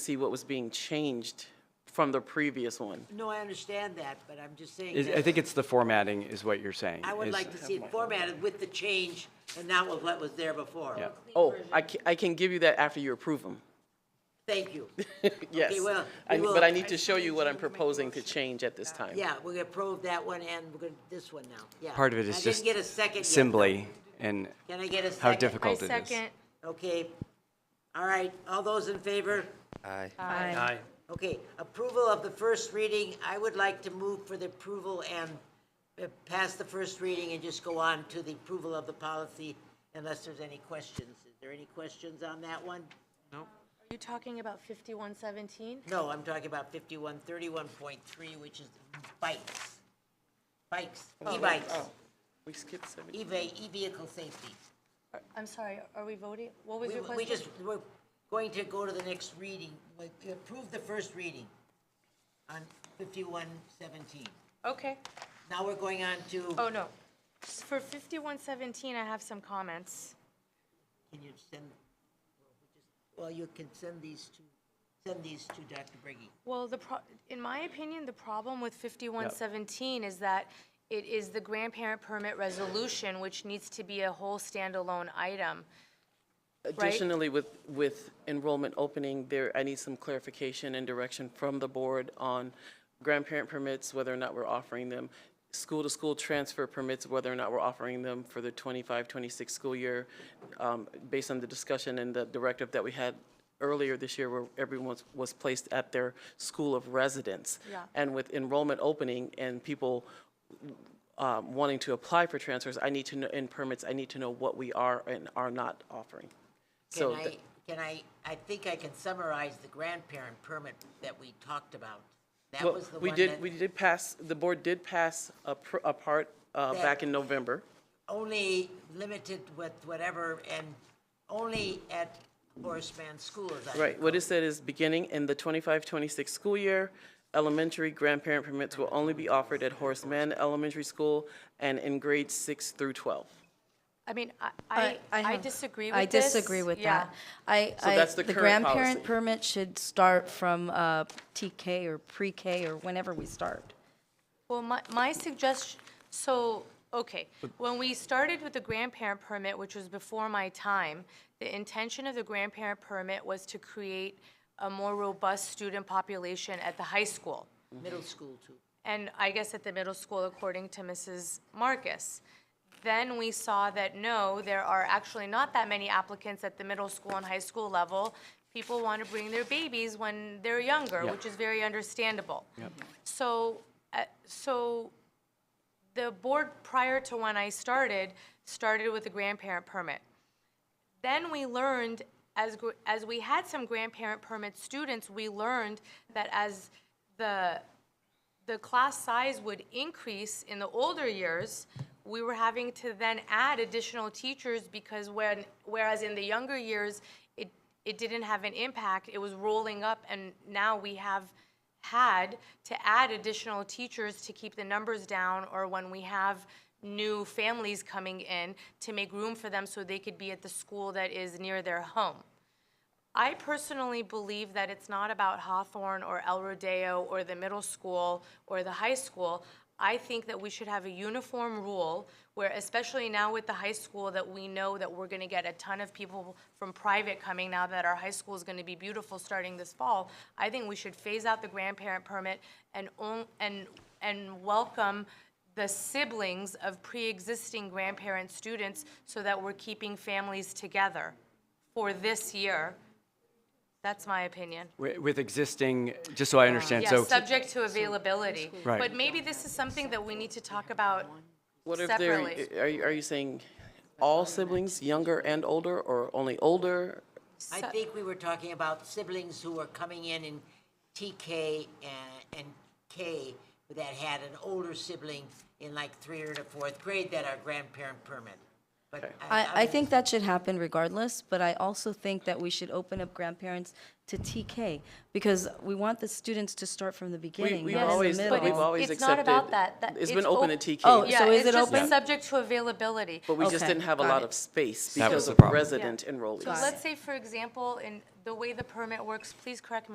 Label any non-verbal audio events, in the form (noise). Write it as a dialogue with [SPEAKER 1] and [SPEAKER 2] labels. [SPEAKER 1] see what was being changed from the previous one.
[SPEAKER 2] No, I understand that, but I'm just saying
[SPEAKER 3] Is- I
[SPEAKER 2] that
[SPEAKER 3] think it's the formatting is what you're saying.
[SPEAKER 2] I would
[SPEAKER 3] is-
[SPEAKER 2] like to see it formatted with the change and not with what was there before.
[SPEAKER 3] Yeah.
[SPEAKER 1] Oh, I can, I can give you that after you approve them.
[SPEAKER 2] Thank
[SPEAKER 3] (laughs)
[SPEAKER 2] you.
[SPEAKER 1] Yes.
[SPEAKER 2] Okay, well,
[SPEAKER 1] I-
[SPEAKER 2] we will-
[SPEAKER 1] But I need to show you what I'm proposing to change at this time.
[SPEAKER 2] Yeah, we're gonna approve that one and we're gonna, this one now, yeah.
[SPEAKER 3] Part of it
[SPEAKER 2] I
[SPEAKER 3] is
[SPEAKER 2] didn't
[SPEAKER 3] just
[SPEAKER 2] get a second yet.
[SPEAKER 3] assembly and
[SPEAKER 2] Can I get a second?
[SPEAKER 3] how difficult
[SPEAKER 4] I
[SPEAKER 3] it is.
[SPEAKER 4] second.
[SPEAKER 2] Okay, all right, all those in favor?
[SPEAKER 4] Aye.
[SPEAKER 2] Okay, approval of the first reading, I would like to move for the approval and uh, pass the first reading and just go on to the approval of the policy unless there's any questions. Is there any questions on that one?
[SPEAKER 4] Are you talking about 5117?
[SPEAKER 2] No, I'm talking about fifty-one thirty-one point three, which is bikes. Bikes,
[SPEAKER 1] Oh,
[SPEAKER 2] e-bikes,
[SPEAKER 1] We skipped seven.
[SPEAKER 2] e-ve- e-vehicle safety.
[SPEAKER 4] Are- I'm sorry, are we voting? What was
[SPEAKER 2] We,
[SPEAKER 4] your
[SPEAKER 2] we
[SPEAKER 4] question?
[SPEAKER 2] just, we're going to go to the next reading, We- we approve the first reading on fifty-one seventeen.
[SPEAKER 4] Okay,
[SPEAKER 2] Now we're going on to,
[SPEAKER 4] oh, no. S- For 5117, I have some comments.
[SPEAKER 2] can you send, well, you can send these to, send these to Dr. Briggy.
[SPEAKER 4] Well, the, pro- in my opinion, the problem with 5117 is that it is the grandparent permit resolution, which needs to be a whole standalone item.
[SPEAKER 1] Additionally, with, with enrollment opening, there, I need some clarification and direction from the board on grandparent permits, whether or not we're offering them, school-to-school transfer permits, whether or not we're offering them for the 25, 26 school year, um, based on the discussion and the directive that we had earlier this year, where everyone was- was placed at their school of residence.
[SPEAKER 4] Yeah.
[SPEAKER 1] And with enrollment opening and people um, wanting to apply for transfers, I need to know, in permits, I need to know what we are and are not offering.
[SPEAKER 2] Can
[SPEAKER 1] So,
[SPEAKER 2] I,
[SPEAKER 1] th-
[SPEAKER 2] can I, I think I can summarize the grandparent permit that we talked about. That
[SPEAKER 1] well,
[SPEAKER 2] was the
[SPEAKER 1] we
[SPEAKER 2] one
[SPEAKER 1] did, we
[SPEAKER 2] that,
[SPEAKER 1] did pass, the board did pass a, pr- a part, uh,
[SPEAKER 2] That-
[SPEAKER 1] back in November.
[SPEAKER 2] only limited with whatever, and only at Horaceman School, as I
[SPEAKER 1] Right, what it said is, beginning in the 25-26 school year, elementary grandparent permits will only be offered at Horace Mann Elementary School and in grades six through twelve.
[SPEAKER 4] I mean, I- I, I
[SPEAKER 5] have-
[SPEAKER 4] disagree with
[SPEAKER 5] I
[SPEAKER 4] this.
[SPEAKER 5] disagree with
[SPEAKER 4] Yeah.
[SPEAKER 5] that. I, I-
[SPEAKER 1] that's the
[SPEAKER 5] the
[SPEAKER 1] current
[SPEAKER 5] grandparent
[SPEAKER 1] policy.
[SPEAKER 5] permit should start from uh, TK or pre-K or whenever we start.
[SPEAKER 4] Well, my, my suggestion, so, okay, when we started with the grandparent permit, which was before my time, the intention of the grandparent permit was to create a more robust student population at the high school,
[SPEAKER 2] middle school too.
[SPEAKER 4] and I guess at the middle school, according to Mrs. Marcus. Then we saw that, no, there are actually not that many applicants at the middle school and high school level. People want to bring their babies when they're younger, which is very understandable. So, uh, so the board prior to when I started, started with a grandparent permit. Then we learned, as, gr- as we had some grandparent permit students, we learned that as the, the class size would increase in the older years, we were having to then add additional teachers because when, whereas in the younger years, it, it didn't have an impact, it was rolling up, and now we have had to add additional teachers to keep the numbers down, or when we have new families coming in, to make room for them so they could be at the school that is near their home. I personally believe that it's not about Hawthorne or El Rodeo or the middle school or the high school. I think that we should have a uniform rule where, especially now with the high school, that we know that we're gonna get a ton of people from private coming now that our high school is gonna be beautiful starting this fall. I think we should phase out the grandparent permit and own, and, and welcome the siblings of pre-existing grandparent students so that we're keeping families together for this year. That's my opinion.
[SPEAKER 3] Wi- With existing, just so I understand,
[SPEAKER 4] Uh, Yeah,
[SPEAKER 3] so
[SPEAKER 4] subject to availability.
[SPEAKER 3] Right.
[SPEAKER 4] But maybe this is something that we need to talk about.
[SPEAKER 1] What if they're,
[SPEAKER 4] Separately.
[SPEAKER 1] are you, are you saying all siblings, younger and older, or only older?
[SPEAKER 2] I think we were talking about siblings who were coming in in TK and, and K that had an older sibling in like three or to fourth grade that are grandparent permit. But
[SPEAKER 5] I, I think that should happen regardless, but I also think that we should open up grandparents to TK because we want the students to start from the beginning,
[SPEAKER 1] we've
[SPEAKER 5] not in the
[SPEAKER 1] always-
[SPEAKER 5] middle.
[SPEAKER 4] But
[SPEAKER 1] we've
[SPEAKER 4] it's-
[SPEAKER 1] always
[SPEAKER 4] it's not about
[SPEAKER 1] accepted-
[SPEAKER 4] that. That-
[SPEAKER 1] It's been
[SPEAKER 4] op-
[SPEAKER 1] open to TK.
[SPEAKER 5] Oh,
[SPEAKER 4] Yeah,
[SPEAKER 5] so is it
[SPEAKER 4] it's just
[SPEAKER 5] open?
[SPEAKER 4] subject to availability.
[SPEAKER 1] But we just
[SPEAKER 5] Okay,
[SPEAKER 1] didn't have a
[SPEAKER 5] got
[SPEAKER 1] lot
[SPEAKER 5] it.
[SPEAKER 1] of space
[SPEAKER 3] That
[SPEAKER 1] because
[SPEAKER 3] was the
[SPEAKER 1] of
[SPEAKER 3] problem.
[SPEAKER 1] resident enrollees.
[SPEAKER 4] So let's say, for example, in the way the permit works, please correct me.